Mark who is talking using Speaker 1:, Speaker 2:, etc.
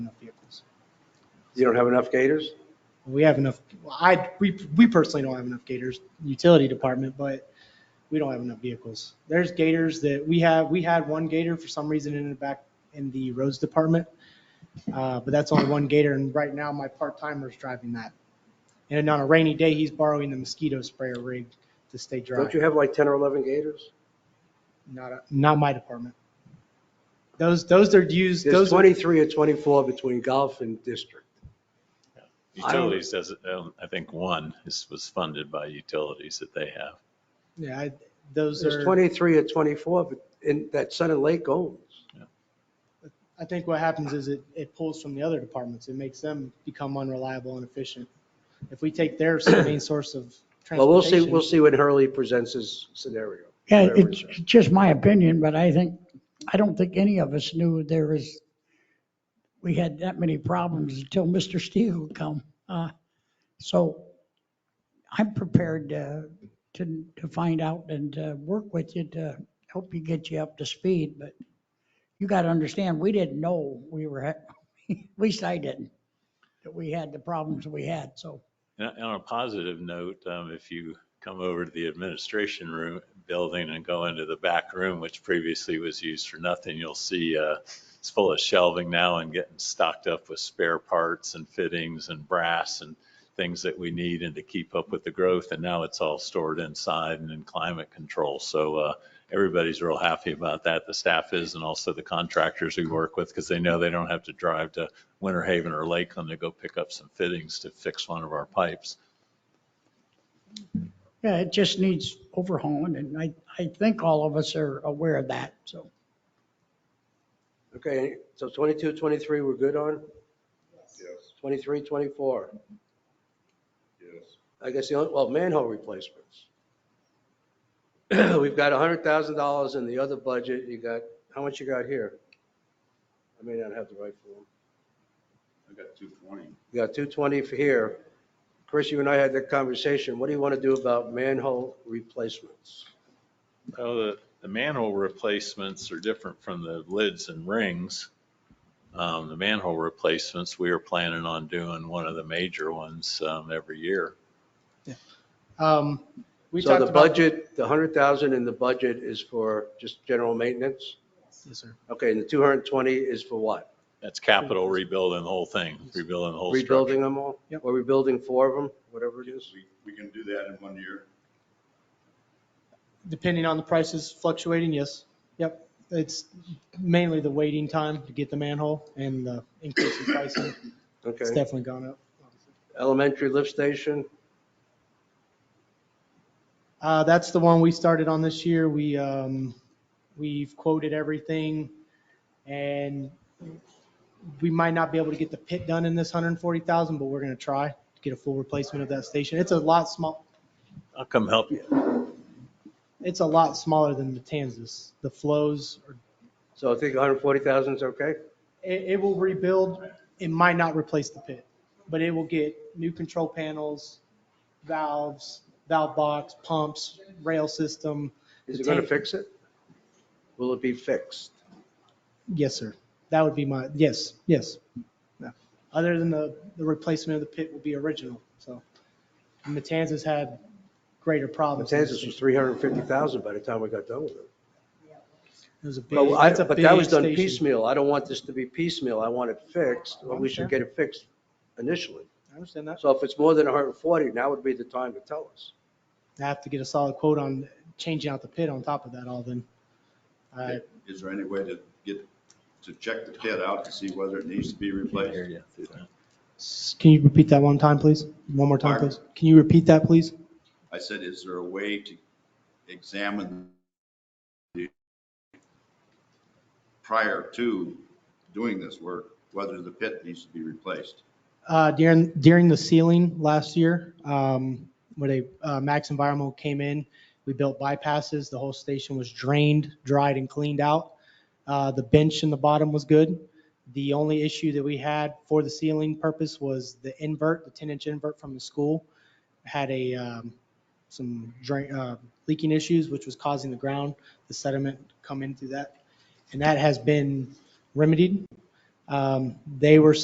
Speaker 1: You don't have enough gators?
Speaker 2: We have enough, I, we, we personally don't have enough gators, utility department, but we don't have enough vehicles. There's gators that we have, we had one gator for some reason in the back, in the roads department. Uh, but that's only one gator and right now my part timer's driving that. And on a rainy day, he's borrowing the mosquito sprayer rig to stay dry.
Speaker 1: Don't you have like 10 or 11 gators?
Speaker 2: Not, a- not my department. Those, those are used,
Speaker 1: There's
Speaker 2: those are.
Speaker 1: 23 or 24 between golf and district. I don't-
Speaker 3: Utilities does, um, I think one is, was funded by utilities that they have.
Speaker 2: Yeah, I- those
Speaker 1: There's
Speaker 2: are,
Speaker 1: 23 or 24 but in that Sun and Lake owns.
Speaker 2: I think what happens is it, it pulls from the other departments. It makes them become unreliable and efficient. If we take their main source of
Speaker 1: Well, we'll see,
Speaker 2: transportation,
Speaker 1: we'll see when Hurley presents his scenario.
Speaker 4: Yeah,
Speaker 1: whatever
Speaker 4: it's
Speaker 1: is.
Speaker 4: it's just my opinion, but I think, I don't think any of us knew there was, we had that many problems until Mr. Steele come. Uh, So I'm prepared uh, to, to find out and uh, work with you to help you get you up to speed, but you got to understand, we didn't know we were, at at least I didn't, that we had the problems we had, so.
Speaker 3: And and on a positive note, um, if you come over to the administration room, building and go into the back room, which previously was used for nothing, you'll see, uh, it's full of shelving now and getting stocked up with spare parts and fittings and brass and things that we need and to keep up with the growth. And now it's all stored inside and in climate control. So, uh, everybody's real happy about that. The staff is and also the contractors we work with because they know they don't have to drive to Winter Haven or Lakeland to go pick up some fittings to fix one of our pipes.
Speaker 4: Yeah, it just needs overhauling, and I, I think all of us are aware of that, so.
Speaker 1: Okay, so 22, 23, we're good on? Yes. 23, 24? Yes. I guess the only, well, manhole replacements. We've got $100,000 in the other budget. You got, how much you got here? I may not have the right form.
Speaker 5: I got two twenty.
Speaker 1: You got 220 for here. Chris, you and I had that conversation. What do you want to do about manhole replacements?
Speaker 3: Well, the, the manhole replacements are different from the lids and rings. Um, the manhole replacements, we are planning on doing one of the major ones, um, every year.
Speaker 2: um, we
Speaker 1: So
Speaker 2: talked
Speaker 1: the
Speaker 2: about.
Speaker 1: budget, the 100,000 in the budget is for just general maintenance?
Speaker 2: Yes, sir.
Speaker 1: Okay, and the 220 is for what?
Speaker 3: That's capital rebuilding the whole thing, rebuilding the whole structure.
Speaker 1: Rebuilding them all?
Speaker 2: Yep.
Speaker 1: Or rebuilding four of them, whatever it is?
Speaker 5: We, we can do that in one year.
Speaker 2: Depending on the prices fluctuating, yes. Yep. It's mainly the waiting time to get the manhole and the increase in pricing. It's
Speaker 1: Okay.
Speaker 2: definitely gone up.
Speaker 1: Elementary lift station,
Speaker 2: Uh, that's the one we started on this year. We, um, we've quoted everything and we might not be able to get the pit done in this hundred and forty thousand, but we're gonna try to get a full replacement of that station. It's a lot small,
Speaker 3: I'll come help you.
Speaker 2: it's a lot smaller than Matanzas. The flows, are-
Speaker 1: so I think 140,000 is okay?
Speaker 2: it, it will rebuild. It might not replace the pit, but it will get new control panels, valves, valve box, pumps, rail system.
Speaker 1: Is
Speaker 2: The
Speaker 1: it going to
Speaker 2: tank-
Speaker 1: fix it? Will it be fixed?
Speaker 2: Yes, sir. That would be my, yes, yes. No. Other than the, the replacement of the pit will be original, so. Matanzas had greater problems. than
Speaker 1: Matanzas was 350,000 by the time we got done with it.
Speaker 2: It was a big,
Speaker 1: But I-
Speaker 2: it's a
Speaker 1: but that
Speaker 2: big
Speaker 1: was done
Speaker 2: station.
Speaker 1: piecemeal. I don't want this to be piecemeal. I want it fixed, or we should get it fixed initially.
Speaker 2: I understand that.
Speaker 1: So if it's more than 140, now would be the time to tell us.
Speaker 2: I have to get a solid quote on changing out the pit on top of that all then. I,
Speaker 5: Is there any way to get, to check the pit out to see whether it needs to be replaced?
Speaker 2: S- Can you repeat that one time, please? One more time,
Speaker 5: Pardon?
Speaker 2: please? Can you repeat that, please?
Speaker 5: I said, is there a way to examine the prior to doing this work, whether the pit needs to be replaced?
Speaker 2: Uh, during, during the ceiling last year, um, when a, uh, Max Environmental came in, we built bypasses. The whole station was drained, dried and cleaned out. Uh, the bench in the bottom was good. The only issue that we had for the ceiling purpose was the invert, the ten inch invert from the school had a, um, some drain, uh, leaking issues, which was causing the ground, the sediment come in through that. And that has been remedied. Um, they were